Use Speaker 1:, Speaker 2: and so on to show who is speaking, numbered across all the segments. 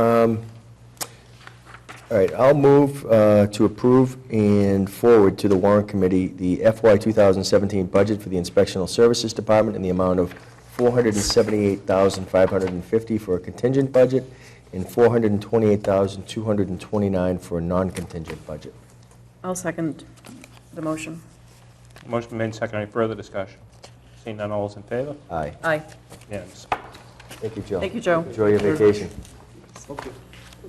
Speaker 1: Um, All right, I'll move uh, to approve and forward to the warrant committee the FY 2017 budget for the Inspectional Services Department in the amount of $478,550 for a contingent budget and $428,229 for a non-contingent budget.
Speaker 2: I'll second the motion.
Speaker 3: Motion made, second. Any further discussion? Seeing none, all is in favor?
Speaker 1: Aye.
Speaker 2: Aye.
Speaker 3: Yes.
Speaker 1: Thank you, Joe.
Speaker 2: Thank you, Joe.
Speaker 1: Enjoy your vacation.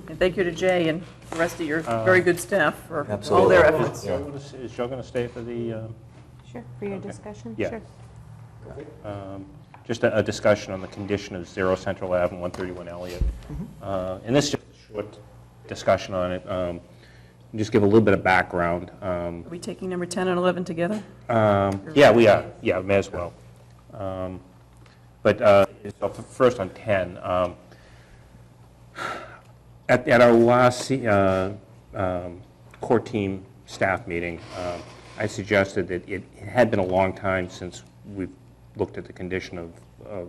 Speaker 2: And thank you to Jay and the rest of your
Speaker 3: Uh,
Speaker 2: very good staff for all
Speaker 1: Absolutely.
Speaker 2: their efforts.
Speaker 1: Yeah.
Speaker 3: Is Joe going to stay for the, um,
Speaker 4: Sure, for your
Speaker 3: Okay.
Speaker 4: discussion?
Speaker 3: Yeah.
Speaker 4: Sure.
Speaker 3: um, just a a discussion on the condition of Zero Central Ave and 131 Elliott? Uh, And this is just a short discussion on it. Um, Just give a little bit of background. Um,
Speaker 2: Are we taking number 10 and 11 together?
Speaker 3: Um, Yeah, we are, yeah, may as well. Um, But uh, so f- first on 10, um, at at our last se- uh, um, core team staff meeting, um, I suggested that it it had been a long time since we've looked at the condition of of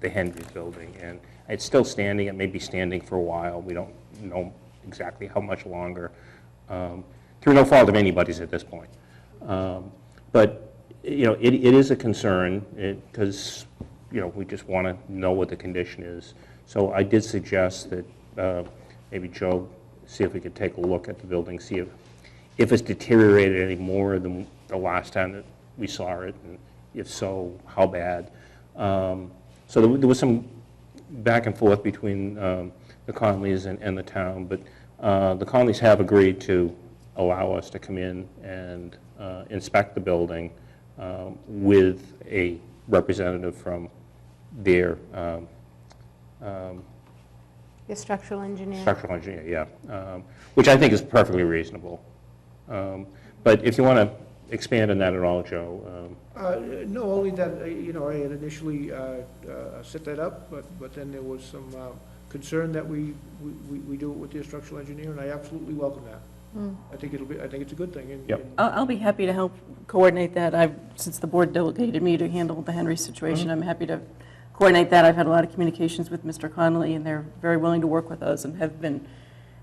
Speaker 3: the Hendry's building, and it's still standing, it may be standing for a while, we don't know exactly how much longer, um, through no fault of anybody's at this point. Um, But, you know, it, it is a concern, because, you know, we just want to know what the condition is. So I did suggest that uh, maybe Joe, see if we could take a look at the building, see if, if it's deteriorated any more than the last time that we saw it, and if so, how bad. Um, So there wa- there was some back and forth between um, the Conleys and, and the town, but uh, the Conleys have agreed to allow us to come in and uh, inspect the building um, with a representative from their um,
Speaker 4: Your structural engineer.
Speaker 3: structural engineer, yeah, um, which I think is perfectly reasonable. Um, But if you want to expand on that at all, Joe, um,
Speaker 5: Uh, No, only that, uh, you know, I had initially uh, uh, set that up, but, but then there was some uh, concern that we, we- we we do it with the structural engineer, and I absolutely welcome that.
Speaker 2: Hmm.
Speaker 5: I think it'll be, I think it's a good thing. and-
Speaker 3: Yep.
Speaker 5: and-
Speaker 2: I'll, I'll be happy to help coordinate that. I've, since the board delegated me to handle the Henry situation, I'm happy to coordinate that. I've had a lot of communications with Mr. Connolly, and they're very willing to work with us and have been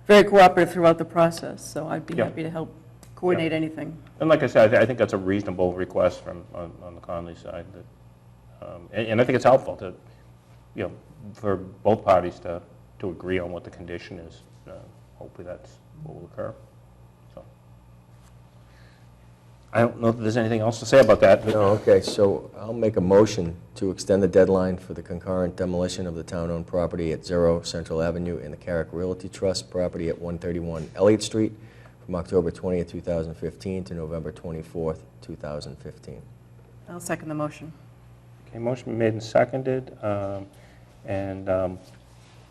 Speaker 2: very cooperative throughout the process, so I'd be
Speaker 3: Yeah.
Speaker 2: happy to help coordinate anything.
Speaker 3: And like I said, I thi- I think that's a reasonable request from, on on the Conley side, that, um, and and I think it's helpful to, you know, for both parties to, to agree on what the condition is. Uh, Hopefully that's what will occur, so. I don't know if there's anything else to say about that. but-
Speaker 1: No, okay, so I'll make a motion to extend the deadline for the concurrent demolition of the town-owned property at Zero Central Avenue and the Carrick Realty Trust property at 131 Elliott Street from October 20th, 2015 to November 24th, 2015.
Speaker 2: I'll second the motion.
Speaker 3: Okay, motion made and seconded, um, and, um,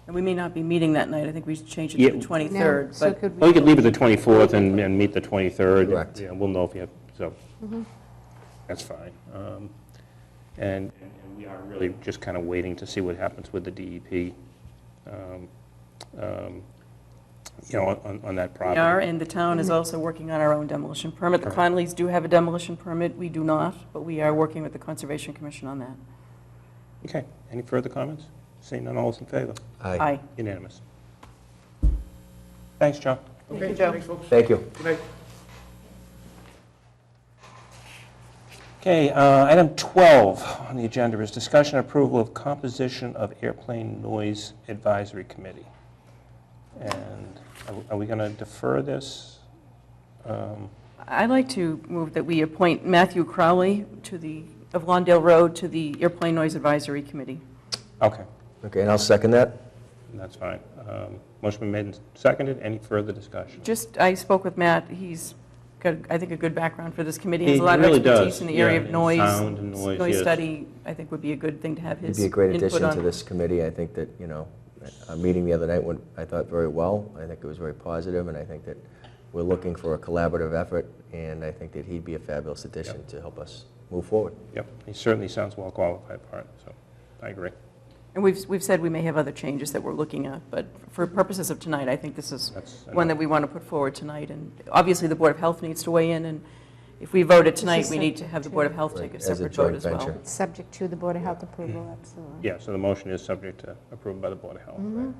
Speaker 2: And we may not be meeting that night, I think we should change it to the
Speaker 3: Yeah.
Speaker 4: Now,
Speaker 2: 23rd,
Speaker 4: so
Speaker 2: but
Speaker 4: could
Speaker 3: well, you
Speaker 4: we,
Speaker 3: could leave it the 24th and and meet the 23rd.
Speaker 1: Correct.
Speaker 3: Yeah, We'll know if you have, so,
Speaker 2: Mm-hmm.
Speaker 3: that's fine. Um, And and we are really just kind of waiting to see what happens with the DEP, um, um, you know, on- on that
Speaker 2: we are,
Speaker 3: property.
Speaker 2: and the town is also working on our own demolition permit. The Conleys do have a demolition permit, we do not, but we are working with the Conservation Commission on that.
Speaker 3: Okay, any further comments? Seeing none, all is in favor?
Speaker 2: Aye.
Speaker 3: Unanimous. Thanks, John.
Speaker 2: Thank you,
Speaker 5: Okay,
Speaker 2: Joe.
Speaker 5: thanks, folks.
Speaker 1: Thank you.
Speaker 5: Good night.
Speaker 3: Okay, uh, item 12 on the agenda is discussion and approval of composition of airplane noise advisory committee. And are- are we going to defer this? Um,
Speaker 2: I'd like to move that we appoint Matthew Crowley to the, of Lawndale Road, to the Airplane Noise Advisory Committee.
Speaker 3: Okay,
Speaker 1: Okay, and I'll second that.
Speaker 3: that's fine. Um, Motion been made and seconded. Any further discussion?
Speaker 2: Just, I spoke with Matt, he's got, I think, a good background for this committee. He has a
Speaker 3: He
Speaker 2: lot of
Speaker 3: really does,
Speaker 2: expertise in the area
Speaker 3: yeah,
Speaker 2: of
Speaker 3: in
Speaker 2: noise.
Speaker 3: sound and noise, yes.
Speaker 2: study, I think, would be a good thing to have
Speaker 1: You'd
Speaker 2: his
Speaker 1: be a great
Speaker 2: input
Speaker 1: addition
Speaker 2: on.
Speaker 1: to this committee. I think that, you know, our meeting the other night went, I thought, very well. I think it was very positive, and I think that we're looking for a collaborative effort, and I think that he'd be a fabulous addition to help us move forward.
Speaker 3: Yep, he certainly sounds well qualified for it, so I agree.
Speaker 2: And we've, we've said we may have other changes that we're looking at, but for purposes of tonight, I think this is
Speaker 3: That's
Speaker 2: one that we want to put forward tonight. And obviously, the Board of Health needs to weigh in, and if we vote it tonight,
Speaker 4: a
Speaker 2: we need to have the Board of Health
Speaker 1: Right,
Speaker 2: take a
Speaker 1: as a
Speaker 2: separate vote
Speaker 1: joint
Speaker 2: as well.
Speaker 1: venture.
Speaker 4: it's
Speaker 3: Mm-hmm.
Speaker 4: subject to the Board of Health approval, absolutely.
Speaker 2: Mm-hmm.
Speaker 4: Mm-hmm.
Speaker 3: Yeah, so the motion is subject to approval by the Board of Health, right?